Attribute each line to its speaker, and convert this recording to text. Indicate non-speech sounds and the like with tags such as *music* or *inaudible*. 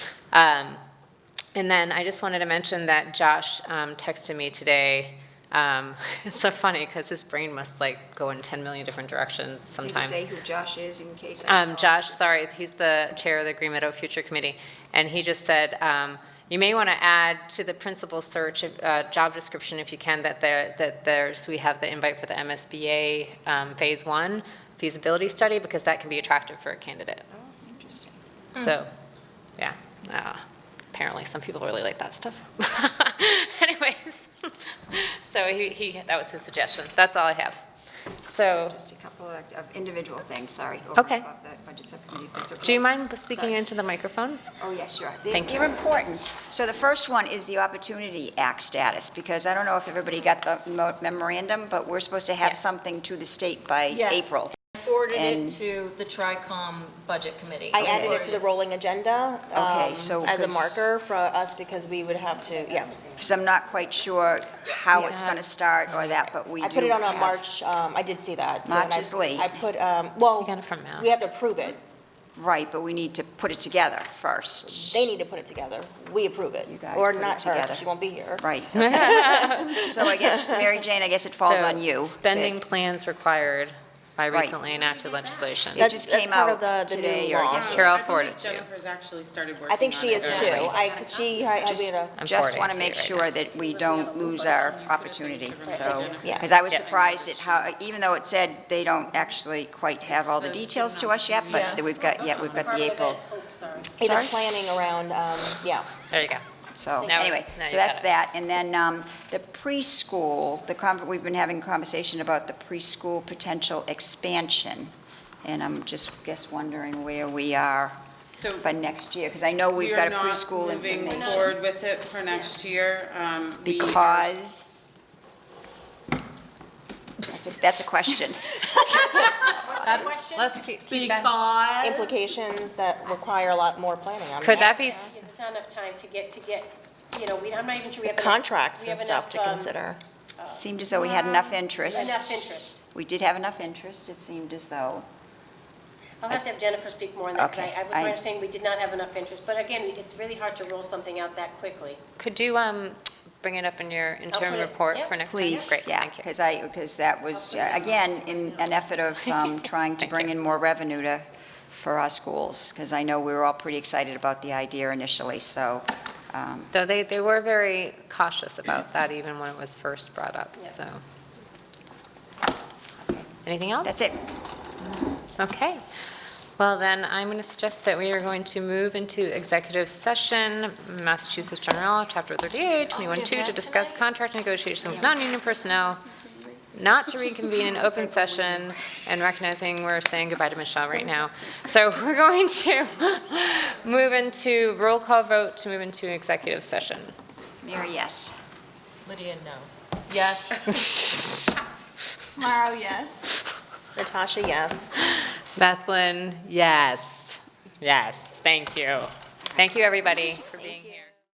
Speaker 1: Um, And then I just wanted to mention that Josh um, texted me today. Um, *laughs* It's so funny because his brain must like go in 10 million different directions
Speaker 2: Can you
Speaker 1: sometimes.
Speaker 2: say who Josh is in case? I
Speaker 1: Um, Josh, sorry, he's the chair of the Green Meadow Future Committee, and he just said, um, you may want to add to the principal search, uh, job description if you can, that there, that there's, we have the invite for the MSBA, um, Phase One feasibility study, because that can be attractive for a candidate.
Speaker 2: Oh, Interesting.
Speaker 1: So, yeah, uh, apparently some people really like that stuff. *laughs* Anyways, *laughs* so he, he, that was his suggestion. That's all I have. So,
Speaker 2: Just a couple of of individual things, sorry. over and
Speaker 1: Okay.
Speaker 2: above the budget subcommittee, if that's okay.
Speaker 1: do you mind speaking
Speaker 2: Sorry.
Speaker 1: into the microphone?
Speaker 2: Oh, yeah, sure. They-
Speaker 1: Thank you.
Speaker 2: They're important. So the first one is the Opportunity Act status, because I don't know if everybody got the mo- memorandum, but we're supposed to have
Speaker 3: Yeah.
Speaker 2: something to the state by
Speaker 3: Yes.
Speaker 2: April.
Speaker 3: I forwarded
Speaker 2: And-
Speaker 3: it to the TRICOM Budget Committee.
Speaker 4: I added it to the rolling agenda.
Speaker 2: Okay,
Speaker 4: um,
Speaker 2: so
Speaker 4: As a
Speaker 2: 'cause-
Speaker 4: marker for us, because we would have to, yeah.
Speaker 2: Because I'm not quite sure how it's
Speaker 1: Yeah.
Speaker 2: going to start or that, but we do
Speaker 4: I put it on a
Speaker 2: have-
Speaker 4: March, um, I did see that. so, and
Speaker 2: March
Speaker 4: I-
Speaker 2: is late.
Speaker 4: I put, um, well,
Speaker 1: You got it from Matt.
Speaker 4: we have to approve it.
Speaker 2: Right, but we need to put it together first.
Speaker 4: They need to put it together. We approve it.
Speaker 2: You guys
Speaker 4: Or
Speaker 2: put it
Speaker 4: not her,
Speaker 2: together.
Speaker 4: she won't be here.
Speaker 1: *laughs*
Speaker 2: Right. So I guess, Mary Jane, I guess it falls
Speaker 1: So,
Speaker 2: on you. that-
Speaker 1: Spending plans required by
Speaker 2: Right.
Speaker 1: recently enacted legislation.
Speaker 2: It
Speaker 4: That's-
Speaker 2: just
Speaker 4: that's
Speaker 2: came
Speaker 4: part
Speaker 2: out
Speaker 4: of the- the new
Speaker 2: today or
Speaker 4: law.
Speaker 2: yesterday.
Speaker 1: Here, I'll
Speaker 5: I
Speaker 1: forward
Speaker 5: believe
Speaker 1: it to you.
Speaker 5: Jennifer's actually started working on it.
Speaker 4: I think she is too.
Speaker 1: Yeah.
Speaker 4: I, 'cause she, I, I
Speaker 2: Just,
Speaker 4: did a,
Speaker 1: I'm
Speaker 2: just
Speaker 1: forwarding
Speaker 2: want
Speaker 1: it
Speaker 2: to
Speaker 1: to you
Speaker 2: make
Speaker 1: right
Speaker 2: sure that we don't lose our opportunity, so.
Speaker 4: Yeah.
Speaker 2: Because I was
Speaker 1: Yeah.
Speaker 2: surprised at how, even though it said they don't actually quite have all the
Speaker 5: It's the
Speaker 2: details to
Speaker 5: signal.
Speaker 2: us yet,
Speaker 3: Yeah.
Speaker 2: but we've got, yeah, we've got the April,
Speaker 4: it
Speaker 2: Sorry?
Speaker 4: is planning around, um, yeah.
Speaker 1: There you go.
Speaker 2: so,
Speaker 1: Now
Speaker 2: anyway.
Speaker 1: it's- now
Speaker 2: So
Speaker 1: you've got
Speaker 2: that's
Speaker 1: it.
Speaker 2: that, and then um, the preschool, the, con- we've been having conversation about the preschool potential expansion, and I'm just, guess, wondering where we are
Speaker 5: So-
Speaker 2: for next year, because I know we've got a preschool
Speaker 5: We are not moving
Speaker 2: information.
Speaker 5: forward with it for next year. um, we are-
Speaker 2: Because? That's a, that's
Speaker 1: *laughs*
Speaker 2: a question.
Speaker 1: Let's keep, keep that.
Speaker 6: Because
Speaker 4: Implications that require a lot more planning. I mean,
Speaker 1: Could that be, s-
Speaker 6: it's not enough time to get, to get, you know, we, I'm not even sure we have. enough-
Speaker 3: contracts
Speaker 6: we
Speaker 3: and
Speaker 6: have
Speaker 3: stuff to
Speaker 6: enough, um,
Speaker 3: consider.
Speaker 2: Seemed as though we had enough interest.
Speaker 6: Enough interest.
Speaker 2: We did have enough interest, it seemed as though.
Speaker 6: I'll have to have Jennifer speak more on that, because
Speaker 2: Okay,
Speaker 6: I, I was
Speaker 2: I-
Speaker 6: understanding we did not have enough interest, but again, it's really hard to roll something out that quickly.
Speaker 1: could you, um, bring it up in your interim
Speaker 6: put it-
Speaker 1: report
Speaker 6: yeah.
Speaker 1: for next time?
Speaker 2: Please,
Speaker 1: Great,
Speaker 2: yeah,
Speaker 1: thank you.
Speaker 2: because I, because that was, uh, again, in an
Speaker 1: *laughs*
Speaker 2: effort of um, trying to
Speaker 1: Thank
Speaker 2: bring
Speaker 1: you.
Speaker 2: in more revenue to, for our schools, because I know we were all pretty excited about the idea initially, so, um,
Speaker 1: Though they, they were very cautious about that even when it was first brought up,
Speaker 6: Yeah.
Speaker 1: so. Anything else?
Speaker 2: that's it.
Speaker 1: Okay. Well, then, I'm going to suggest that we are going to move into executive session, Massachusetts General Law, Chapter 38, 21-2, to discuss contract negotiations with non-union personnel, not to reconvene in open session, and recognizing we're saying goodbye to Michelle right now. So *laughs* we're going to move into roll call vote to move into executive session.
Speaker 2: Mary, yes.
Speaker 3: Lydia, no. Yes.
Speaker 7: Tomorrow, yes.
Speaker 3: Natasha, yes.
Speaker 1: Bethlen, yes. Yes, thank you. Thank you, everybody, for being here.